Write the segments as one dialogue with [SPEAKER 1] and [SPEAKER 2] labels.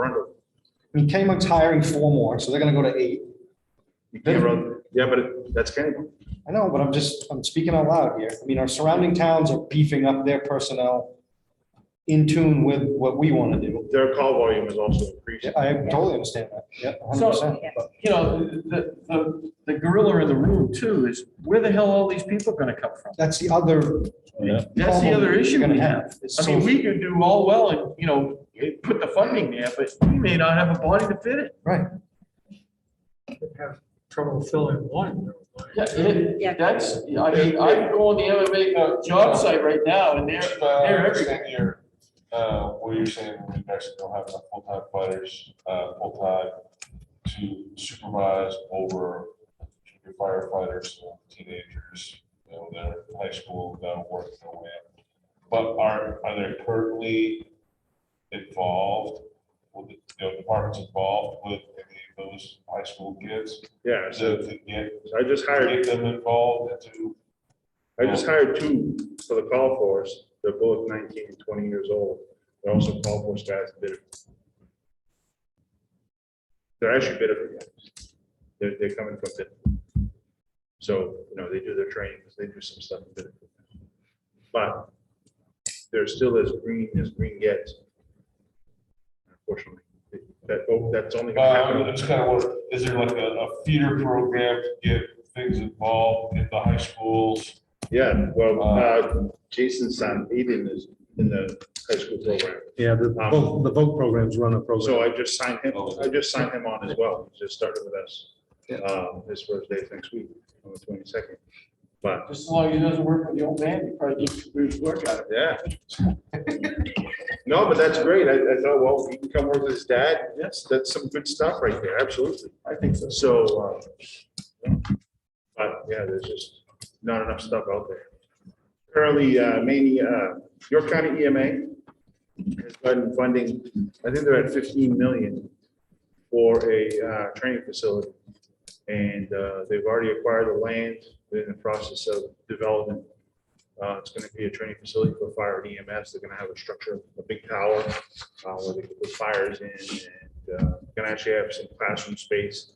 [SPEAKER 1] under.
[SPEAKER 2] I mean, Kennybunk's hiring four more, so they're gonna go to eight.
[SPEAKER 1] You can't run, yeah, but it- that's Kennybunk.
[SPEAKER 2] I know, but I'm just, I'm speaking out loud here. I mean, our surrounding towns are beefing up their personnel in tune with what we want to do.
[SPEAKER 1] Their call volume is also
[SPEAKER 2] Yeah,
[SPEAKER 1] increasing.
[SPEAKER 2] I totally understand that. Yeah, hundred
[SPEAKER 3] So,
[SPEAKER 2] percent.
[SPEAKER 3] you know, the, the, the gorilla in the room too is where the hell all these people are gonna come from?
[SPEAKER 2] That's the other.
[SPEAKER 3] That's the
[SPEAKER 2] problem
[SPEAKER 3] other
[SPEAKER 2] you're
[SPEAKER 3] issue
[SPEAKER 2] gonna
[SPEAKER 3] we have.
[SPEAKER 2] It's
[SPEAKER 3] I
[SPEAKER 2] so-
[SPEAKER 3] mean, we could do all well and, you know, put the funding there, but we may not have a body to fit it.
[SPEAKER 2] Right.
[SPEAKER 4] have trouble filling one. though.
[SPEAKER 3] Yeah,
[SPEAKER 5] Yeah.
[SPEAKER 3] it, that's, I mean, I could go on the MMA uh, job site right now and they're, they're
[SPEAKER 6] Uh,
[SPEAKER 3] everywhere.
[SPEAKER 6] saying you're, uh, well, you're saying we actually don't have enough full-time fighters, uh, full-time to supervise over junior firefighters, teenagers, you know, they're in high school, they're working their way up. But are, are they currently involved, with, the- you know, departments involved with any of those high school kids?
[SPEAKER 1] Yeah,
[SPEAKER 6] To,
[SPEAKER 1] so
[SPEAKER 6] to get,
[SPEAKER 1] I just hired,
[SPEAKER 6] get them involved into,
[SPEAKER 1] I just hired two for the call force. They're both 19 and 20 years old. They're also call force guys that did it. They're actually bidder guys. They're, they're coming from bid. So, you know, they do their trainings, they do some stuff. in Bidford. But they're still as green as green gets. Unfortunately, that, oh, that's only gonna happen.
[SPEAKER 6] Uh, it's kind of what, is there like a, a feeder program to get things involved in the high schools?
[SPEAKER 1] Yeah, well,
[SPEAKER 6] Uh,
[SPEAKER 1] uh, Jason's son, Aiden is in the high school program. Um,
[SPEAKER 7] Yeah, the vote, the vote programs run a program. Oh,
[SPEAKER 1] So I just signed him, I just signed him on as well. He just started with us. Um, his first day is next week, on the twenty-second. But,
[SPEAKER 3] Just as long as it doesn't work for the old man, you probably do good work out of
[SPEAKER 1] yeah. No, but that's great. I, I thought, well, he can come work with his dad. Yes, that's some good stuff right there. Absolutely. I think so. So, um, uh, but yeah, there's just not enough stuff out there. Currently, uh, mainly, uh, York County EMA has gotten funding, I think they're at fifteen million for a, uh, training facility. And, uh, they've already acquired the land, they're in the process of development. Uh, it's gonna be a training facility for fire and EMS, they're gonna have a structure, a big tower, uh, where they can put fires in and, uh, gonna actually have some classroom space.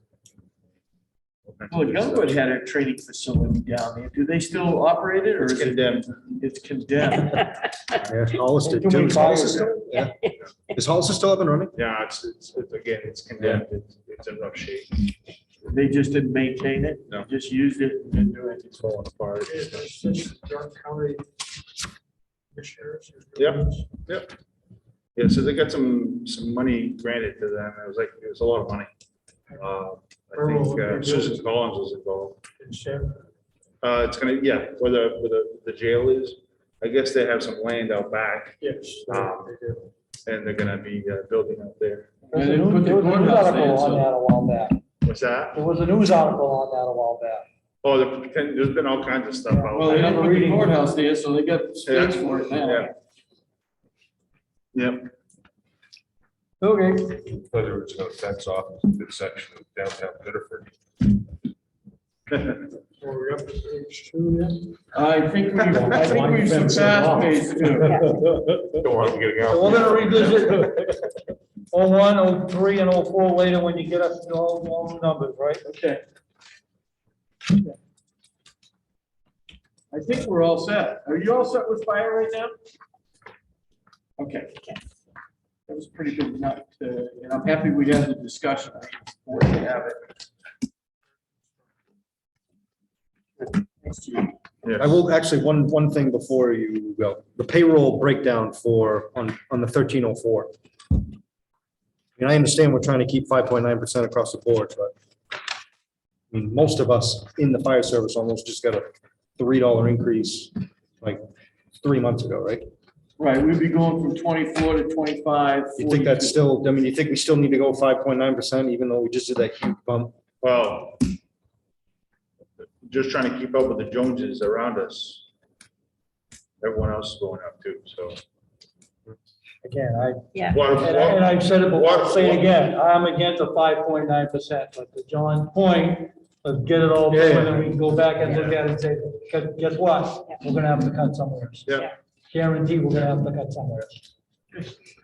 [SPEAKER 3] Well, Youngwood had a training facility down there. Do they still operate it or
[SPEAKER 1] It's
[SPEAKER 3] is it?
[SPEAKER 1] condemned.
[SPEAKER 3] It's condemned.
[SPEAKER 7] Yeah, Hollis did
[SPEAKER 2] Can we
[SPEAKER 7] too. Is
[SPEAKER 2] buy
[SPEAKER 7] Hollis
[SPEAKER 2] it?
[SPEAKER 7] still- Yeah. Is Hollis still up and running?
[SPEAKER 1] Yeah, it's, it's, it's- again, it's condemned, It's- it's in rough shape.
[SPEAKER 3] They just didn't maintain it.
[SPEAKER 1] No.
[SPEAKER 3] They Just used it and didn't do anything.
[SPEAKER 7] It's falling apart.
[SPEAKER 4] Is this the York County Commissioners?
[SPEAKER 1] Yep. Yeah, so they got some, some money granted to them. It was like, it was a lot of money. Uh, I think uh, Susan Collins was involved.
[SPEAKER 4] In San-
[SPEAKER 1] Uh, it's gonna, yeah, where the, where the, the jail is, I guess they have some land out back
[SPEAKER 4] Yes.
[SPEAKER 1] Um,
[SPEAKER 4] they do.
[SPEAKER 1] and they're gonna be uh, building out there.
[SPEAKER 3] And they put the
[SPEAKER 8] There was
[SPEAKER 3] courthouse
[SPEAKER 8] a news article
[SPEAKER 3] in,
[SPEAKER 8] on
[SPEAKER 3] so-
[SPEAKER 8] that a while back.
[SPEAKER 1] What's that?
[SPEAKER 8] There was a news article on that a while back.
[SPEAKER 1] Oh, there- there's been all kinds of stuff
[SPEAKER 3] Well,
[SPEAKER 1] out
[SPEAKER 3] they
[SPEAKER 1] there.
[SPEAKER 3] didn't put the courthouse there, so they got
[SPEAKER 1] Yeah.
[SPEAKER 3] space for it now.
[SPEAKER 1] Yeah. Yep,
[SPEAKER 8] Okay.
[SPEAKER 6] Whether it's gonna fence off this section of downtown Bitterford.
[SPEAKER 4] So we're up to page two then?
[SPEAKER 3] I think we, I think we surpassed phase two.
[SPEAKER 6] Don't want to get
[SPEAKER 8] So we're gonna revisit oh one, oh three, and oh four later when you get up to all, all the numbers, right?
[SPEAKER 3] Okay. I think we're all set. Are you all set with fire right now? Okay. That was a pretty good night, uh, and I'm happy we had the discussion. I think it's important to have it. Thanks, Chief.
[SPEAKER 7] I
[SPEAKER 1] yeah.
[SPEAKER 7] will, actually, one, one thing before you go, the payroll breakdown for, on, on the thirteen oh four. And I understand we're trying to keep five point nine percent across the board, but I mean, most of us in the fire service almost just got a three dollar increase like three months ago, right?
[SPEAKER 3] Right, we'd be going from twenty-four to twenty-five.
[SPEAKER 7] You think
[SPEAKER 3] 42.
[SPEAKER 7] that's still, I mean, you think we still need to go five point nine percent even though we just did that huge bump?
[SPEAKER 1] Well, just trying to keep up with the Joneses around us. Everyone else is going up too, so.
[SPEAKER 8] Again, I,
[SPEAKER 1] Water-
[SPEAKER 8] and I- and I've said it before, I'll say
[SPEAKER 1] Water-
[SPEAKER 8] it again, I'm against a five point nine percent, but to John's point, let's get it all, done, and then we can go back and look at it and say, because guess what? We're gonna have to cut somewhere. else.
[SPEAKER 1] Yeah.
[SPEAKER 8] Guarantee we're gonna have to cut somewhere. else.